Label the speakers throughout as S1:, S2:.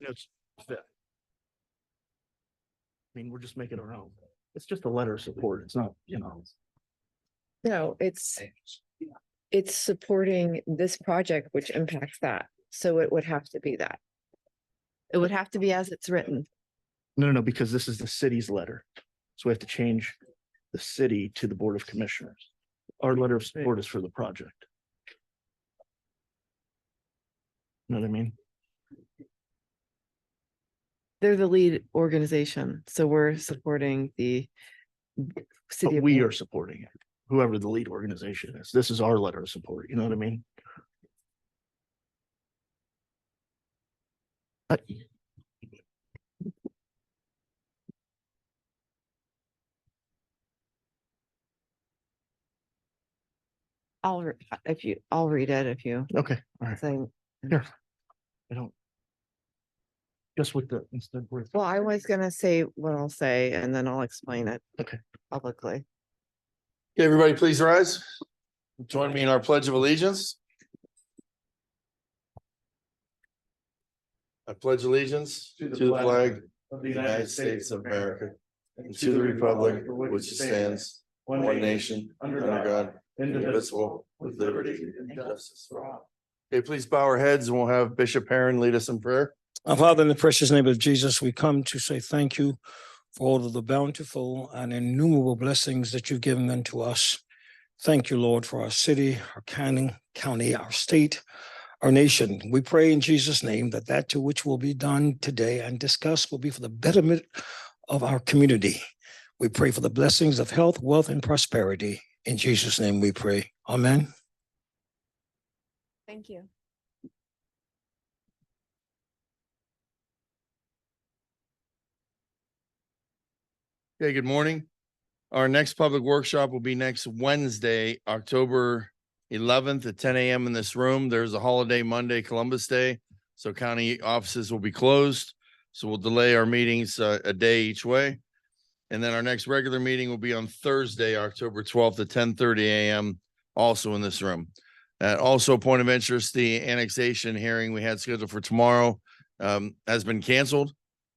S1: it's fit. I mean, we're just making our own. It's just a letter of support. It's not, you know.
S2: No, it's, it's supporting this project which impacts that. So it would have to be that. It would have to be as it's written.
S1: No, no, no, because this is the city's letter. So we have to change the city to the Board of Commissioners. Our letter of support is for the project. Know what I mean?
S3: They're the lead organization, so we're supporting the
S1: But
S3: city. of
S1: we
S3: Lynn.
S1: are supporting it, whoever the lead organization is. This is our letter of support, you know what I mean? I-
S3: I'll, re- if you, I'll read it if you
S1: Okay, all right.
S3: think.
S1: I don't. Just with the, instead we're
S3: Well, I was gonna say what I'll say and then I'll explain it.
S1: Okay.
S3: Publicly.
S4: Okay, everybody, please rise. Join me in our pledge of allegiance. I pledge allegiance to the flag of the United States of America and to the republic which stands one nation under God, indivisible, with liberty and justice for all. Okay, please bow our heads and we'll have Bishop Perrin lead us in prayer.
S5: Our Father, in the precious name of Jesus, we come to say thank you for all of the bountiful and innumerable blessings that you've given unto us. Thank you, Lord, for our city, our county, county, our state, our nation. We pray in Jesus' name that that to which will be done today and discussed will be for the betterment of our community. We pray for the blessings of health, wealth, and prosperity. In Jesus' name we pray. Amen.
S2: Thank you.
S4: Okay, good morning. Our next public workshop will be next Wednesday, October eleventh at ten AM in this room. There's a holiday Monday, Columbus Day. So county offices will be closed. So we'll delay our meetings uh, a day each way. And then our next regular meeting will be on Thursday, October twelfth at ten thirty AM, also in this room. Uh, also, point of interest, the annexation hearing we had scheduled for tomorrow um, has been canceled.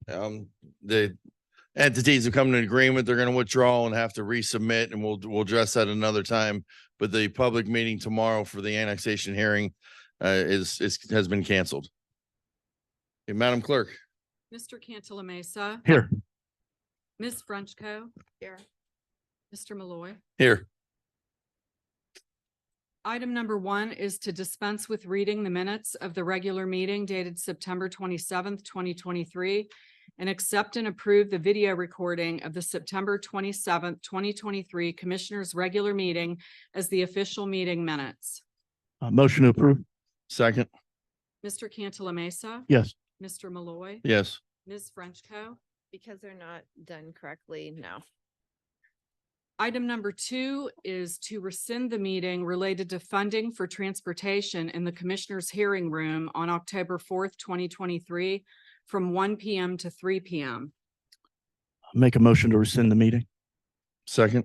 S4: Um, the entities have come to an agreement, they're gonna withdraw and have to resubmit, and we'll, we'll address that another time. But the public meeting tomorrow for the annexation hearing uh, is, is, has been canceled. Okay, Madam Clerk,
S6: Mr. Cantala Mesa,
S1: here.
S6: Ms. Frenchco.
S2: Here.
S6: Mr. Malloy.
S4: here.
S6: Item number one is to dispense with reading the minutes of the regular meeting dated September twenty-seventh, twenty twenty-three, and accept and approve the video recording of the September twenty-seventh, twenty twenty-three Commissioners' Regular Meeting as the official meeting minutes.
S1: Uh, motion to approve,
S4: Second,
S6: Mr. Cantala Mesa,
S1: yes.
S6: Mr. Malloy,
S4: yes.
S6: Ms. Frenchco.
S2: Because they're not done correctly now.
S6: Item number two is to rescind the meeting related to funding for transportation in the Commissioners' Hearing Room on October fourth, twenty twenty-three from one PM to three PM.
S1: Make a motion to rescind the meeting,
S4: Second,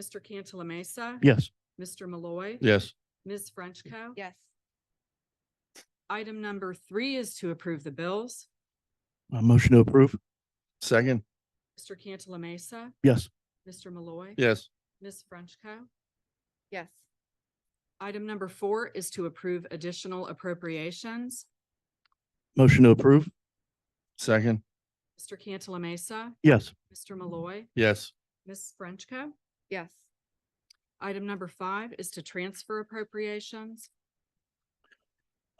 S6: Mr. Cantala Mesa.
S1: yes.
S6: Mr. Malloy.
S4: yes.
S6: Ms. Frenchco.
S2: Yes.
S6: Item number three is to approve the bills.
S1: Uh, motion to approve,
S4: Second,
S6: Mr. Cantala Mesa.
S1: yes.
S6: Mr. Malloy.
S4: yes.
S6: Ms. Frenchco.
S2: Yes.
S6: Item number four is to approve additional appropriations.
S1: Motion to approve,
S4: Second,
S6: Mr. Cantala Mesa.
S1: yes.
S6: Mr. Malloy.
S4: yes.
S6: Ms. Frenchco.
S2: Yes.
S6: Item number five is to transfer appropriations.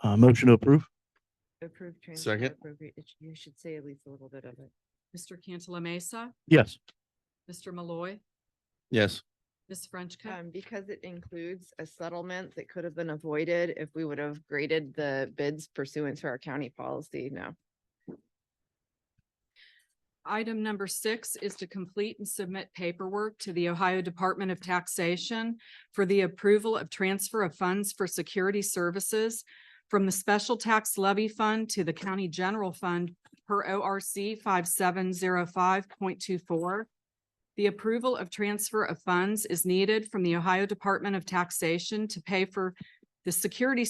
S1: Uh, motion to approve,
S2: Approved. transfer
S4: Second.
S2: appropriate- it sh- You should say at least a little bit of it.
S6: Mr. Cantala Mesa,
S1: yes.
S6: Mr. Malloy,
S4: Yes.
S6: Ms. Frenchco.
S2: Um, because it includes a settlement that could have been avoided if we would have graded the bids pursuant to our county policy No.
S6: Item number six is to complete and submit paperwork to the Ohio Department of Taxation for the approval of transfer of funds for security services from the Special Tax Levy Fund to the County General Fund per ORC five seven zero five point two four. The approval of transfer of funds is needed from the Ohio Department of Taxation to pay for the security